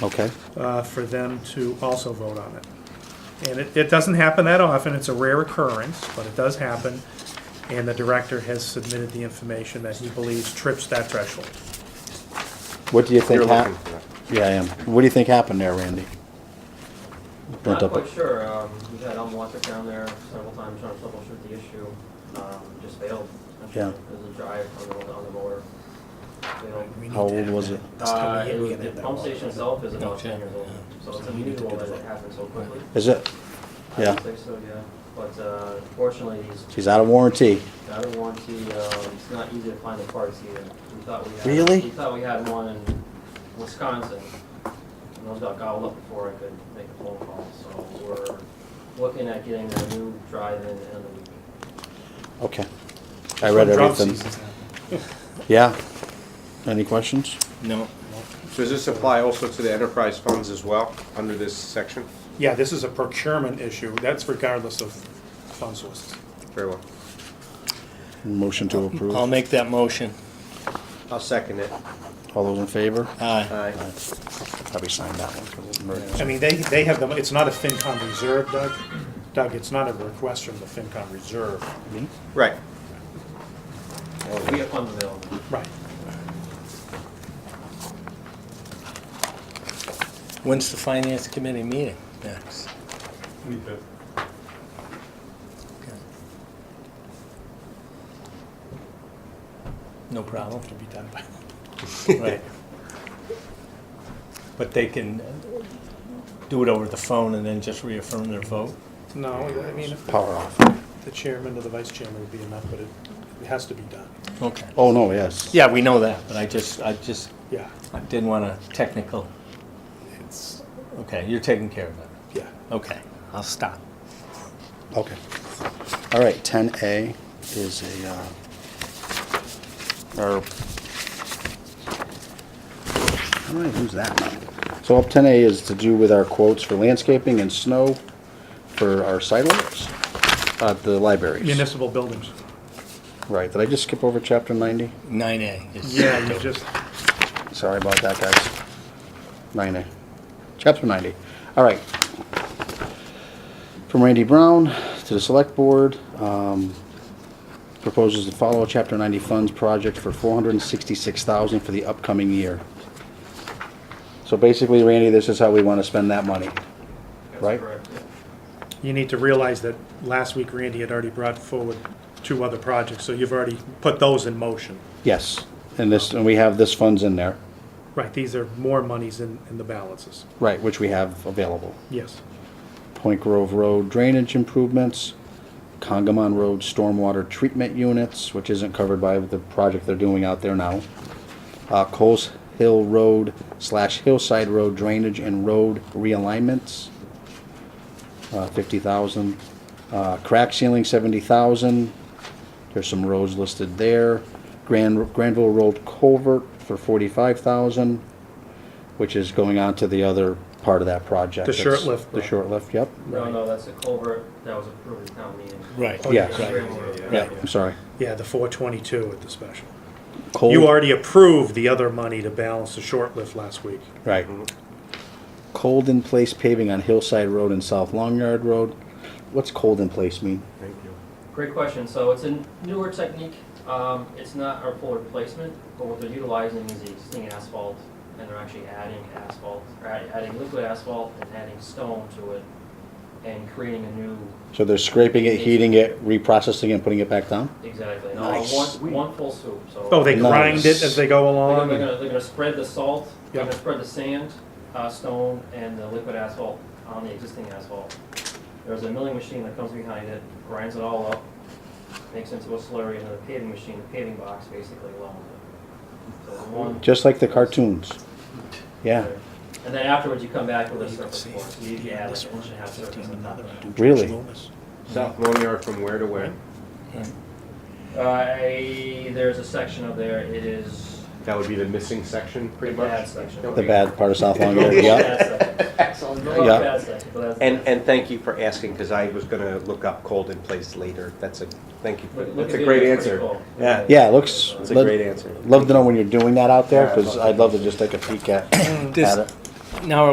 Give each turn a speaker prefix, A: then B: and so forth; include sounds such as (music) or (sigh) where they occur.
A: Okay,
B: uh, for them to also vote on it. And it, it doesn't happen that often, it's a rare occurrence, but it does happen. And the director has submitted the information that he believes trips that threshold.
A: what do you think
C: You're looking
A: happened?
C: for that.
A: Yeah, I am. What do you think happened there, Randy? Burnt
D: Not
A: up.
D: quite sure. Um, we had Elm Watrick down there several times trying to troubleshoot the issue. Um, just failed.
A: Yeah.
D: It was a drive on the, on the motor. Failed.
A: How old was it?
D: Uh, it was, the pump station itself is about ten years old, so it's unusual that it happened so quickly.
A: Is it?
D: I
A: Yeah.
D: would say so, yeah. But, uh, fortunately, he's
A: She's out of warranty.
D: out of warranty. Um, it's not easy to find the parts either. We thought we had.
A: Really?
D: We thought we had one in Wisconsin. And those got gobbled up before I could make a phone call, so we're looking at getting a new drive-in in the week.
A: Okay. I read everything. Yeah. Any questions?
E: No.
C: Does this apply also to the enterprise funds as well, under this section?
B: Yeah, this is a procurement issue, that's regardless of fund sources.
C: Very well.
A: Motion to approve.
E: I'll make that motion.
C: I'll second it.
A: All those in favor?
E: Aye.
C: Aye.
A: Probably sign that one. 'cause it's
B: I
A: emergency.
B: mean, they, they have the, it's not a FinCom reserve, Doug. Doug, it's not a request from the FinCom reserve.
C: Right.
A: Oh.
D: We have funds available.
B: Right.
E: When's the finance committee meeting next? Okay. No problem.
B: To be done by.
E: (laughs) Right. But they can do it over the phone and then just reaffirm their vote?
B: No, I mean,
A: Power off.
B: the chairman or the vice chairman would be enough, but it, it has to be done.
E: Okay.
A: Oh, no, yes.
E: Yeah, we know that, but I just, I just,
B: Yeah,
E: I didn't want a technical,
B: it's,
E: okay, you're taking care of it.
B: yeah.
E: Okay, I'll stop.
A: Okay. All right, ten A is a, uh, or, how do I lose that one? So up ten A is to do with our quotes for landscaping and snow for our sidewalks at the libraries.
B: Municipal buildings.
A: Right, did I just skip over chapter ninety?
E: Nine A is.
B: Yeah, you just,
A: Sorry about that, guys. Nine A, chapter ninety. All right. From Randy Brown to the select board, um, proposes to follow chapter ninety funds project for four hundred and sixty-six thousand for the upcoming year. So basically, Randy, this is how we want to spend that money.
D: That's
A: Right.
D: correct.
B: you need to realize that last week Randy had already brought forward two other projects, so you've already put those in motion.
A: Yes, and this, and we have this funds in there,
B: Right, these are more monies in, in the balances.
A: right, which we have available.
B: Yes.
A: Point Grove Road drainage improvements, Congamon Road stormwater treatment units, which isn't covered by the project they're doing out there now. Uh, Coles Hill Road slash Hillside Road drainage and road realignments, uh, fifty thousand. Uh, crack ceiling, seventy thousand. There's some roads listed there. Grand, Granville Road culvert for forty-five thousand, which is going on to the other part of that project.
B: The short
A: That's-
B: lift
A: The
B: road.
A: short lift, yep.
D: No, no, that's a culvert that was approved at town meeting.
E: Right.
B: Oh, yeah,
A: Yeah.
E: right.
A: Yeah, I'm sorry.
B: Yeah, the four twenty-two at the special.
A: Cold,
B: You already approved the other money to balance the short lift last week.
A: right. Mm-hmm. Cold in place paving on Hillside Road and South Long Yard Road. What's cold in place mean?
C: Thank you.
D: Great question. So it's a newer technique. Um, it's not our full replacement, but what they're utilizing is the existing asphalt, and they're actually adding asphalt, or add- adding liquid asphalt and adding stone to it, and creating a new,
A: So they're scraping it, heating it, reprocessing it, putting it back down?
D: exactly, and
A: Nice.
D: all one, one full swoop, so.
B: Oh, they grind
A: Nice.
B: it as they go
D: They're
B: along?
D: gonna, they're gonna- they're gonna spread the salt, they're
B: Yeah.
D: gonna spread the sand, uh, stone, and the liquid asphalt on the existing asphalt. There's a milling machine that comes behind it, grinds it all up, makes into a slurry, and then a paving machine, a paving box basically along with it. So it's one-
A: Just like the cartoons. Yeah,
D: And then afterwards, you come back with a surface
E: see
D: course, so you can add like an inch and a half surface on top of it.
A: really?
C: South Lawn Yard from where to where?
D: Uh, there's a section up there, it is
C: That would be the missing section,
D: the
C: pretty
D: bad
C: much?
D: section.
A: The bad part of South
C: Oh,
A: Long
D: (laughs)
A: Yard, yeah.
C: (laughs)
D: Excellent.
A: Yeah.
D: bad section, but that's.
C: And, and thank you for asking, because I was gonna look up cold in place later. That's a, thank you. for-
D: Look- look
C: That's
D: at
C: a
D: the
C: great
D: video, it's
C: answer.
D: pretty cool.
C: Yeah.
A: Yeah, it looks.
C: That's a
A: lo-
C: great answer.
A: Love to know when you're doing that out there, because I'd love to just take a peek at, at
E: This-
A: it.
D: now